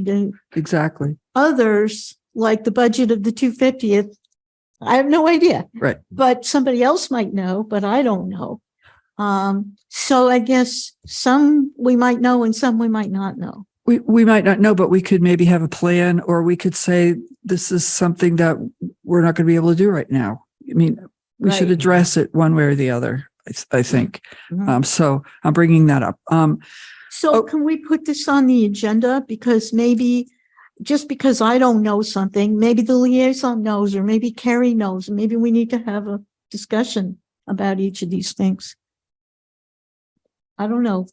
do. Exactly. Others, like the budget of the two fiftieth, I have no idea. Right. But somebody else might know, but I don't know. Um, so I guess some we might know and some we might not know. We, we might not know, but we could maybe have a plan or we could say, this is something that we're not going to be able to do right now. I mean, we should Right. address it one way or the other, I, th- I think. Mhm. Um, so I'm bringing that up. Um, So Oh. can we put this on the agenda? Because maybe, just because I don't know something, maybe the liaison knows, or maybe Carrie knows, and maybe we need to have a discussion about each of these things. I don't know.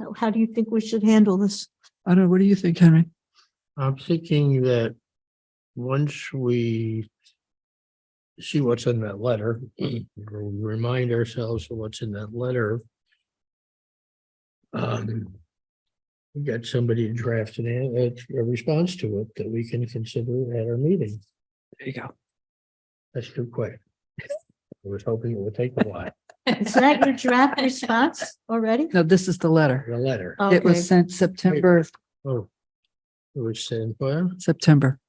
How- How do you think we should handle this? I don't know. What do you think, Henry? I'm thinking that once we see what's in that letter, or remind ourselves of what's in that letter. Um, we get somebody to draft an, a- a response to it that we can consider at our meeting. There you go. That's too quick. I was hoping it would take a while, Is that your draft response already? No, this is the letter. the letter. It Okay. was sent September, Oh. It was sent, well, September.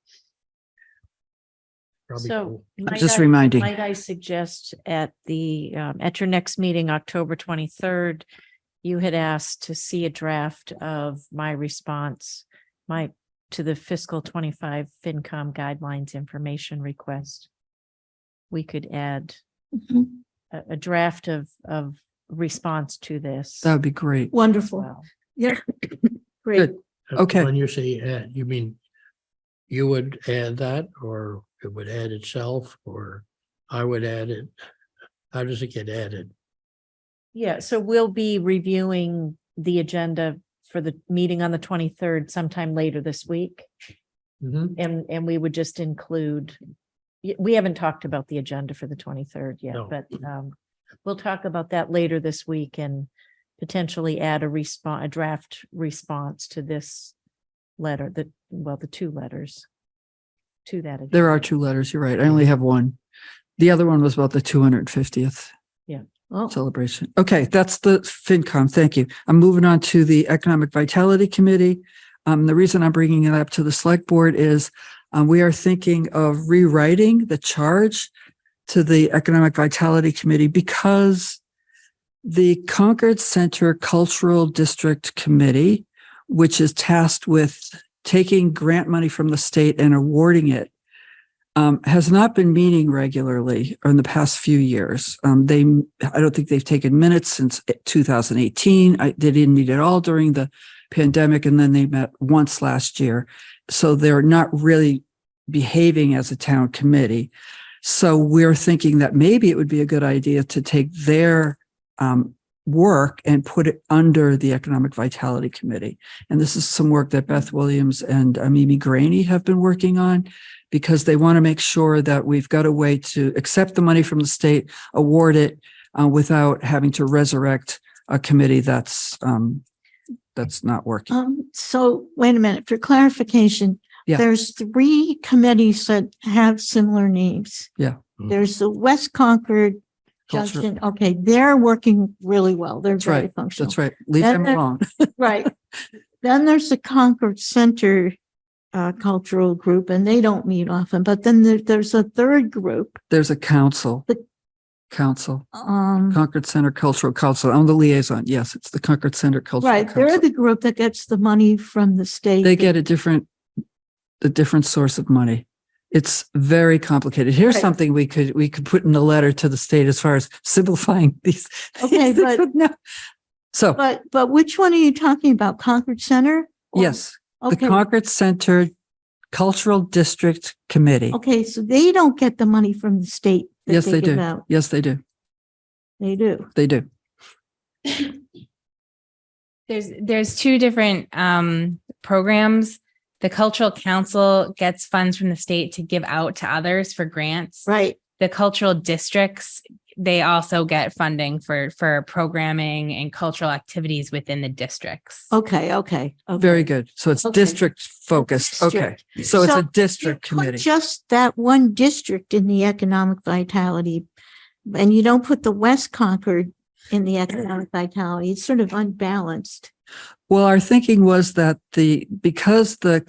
probably, So. I'm might just I- reminding. Might I suggest at the, um, at your next meeting, October twenty-third, you had asked to see a draft of my response, my, to the fiscal twenty-five FinCom guidelines information request. We could add Mhm. a, a draft of, of response to this. That would be great. Wonderful. Well, Yeah. Great. okay. When you say add, you mean you would add that or it would add itself or I would add it? How does it get added? Yeah, so we'll be reviewing the agenda for the meeting on the twenty-third sometime later this week. Mhm. Um, And, and we would just include, y- we haven't talked about the agenda for the twenty-third yet, No. but, um, we'll talk about that later this week and potentially add a response, a draft response to this letter, the, well, the two letters to that. There agenda. are two letters. You're right. I only have one. The other one was about the 250th. Oh, celebration. Okay, that's the FinCom. Thank you. I'm moving on to the Economic Vitality Committee. Um, the reason I'm bringing it up to the select board is, um, we are thinking of rewriting the charge to the Economic Vitality Committee because the Concord Center Cultural District Committee, which is tasked with taking grant money from the state and awarding it, um, has not been meeting regularly in the past few years. Um, they, I don't think they've taken minutes since 2018. I, they didn't meet at all during the pandemic, and then they met once last year. So they're not really behaving as a town committee. So we're thinking that maybe it would be a good idea to take their um, work and put it under the Economic Vitality Committee. And this is some work that Beth Williams and uh, Mimi Graney have been working on because they want to make sure that we've got a way to accept the money from the state, award it uh, without having to resurrect a committee that's um, that's not working. um, so wait a minute, for clarification. Yeah. There's three committees that have similar names. Yeah. Mhm. There's the West Concord Culture- Junction. Okay, they're working really well. They're That's right. very functional. That's right. Leave Oh, Then them there- alone. Right. Then there's the Concord Center uh, Cultural Group, and they don't meet often. But then there, there's a third group. There's a council. The- Council, Um, Concord Center Cultural Council. I'm the liaison. Yes, it's the Concord Center Cultural right, they're Council. the group that gets the money from the state. They get a different, a different source of money. It's very complicated. Here's Right. something we could, we could put in the letter to the state as far as simplifying these. Okay, these- but- No. So, But, but which one are you talking about? Concord Center? Or- yes, the Okay, Concord Center Cultural District Committee. okay, so they don't get the money from the state. that Yes, they give do. out. Yes, they do. They do. They do. There's there's two different um programs. The cultural council gets funds from the state to give out to others for grants. Right. The cultural districts, they also get funding for for programming and cultural activities within the districts. Okay, okay. okay. Very good. So it's Okay. district focused. Okay. District. So it's So a district You put committee. Just that one district in the economic vitality, and you don't put the West Concord in the economic vitality. It's sort of unbalanced. Well, our thinking was that the, because the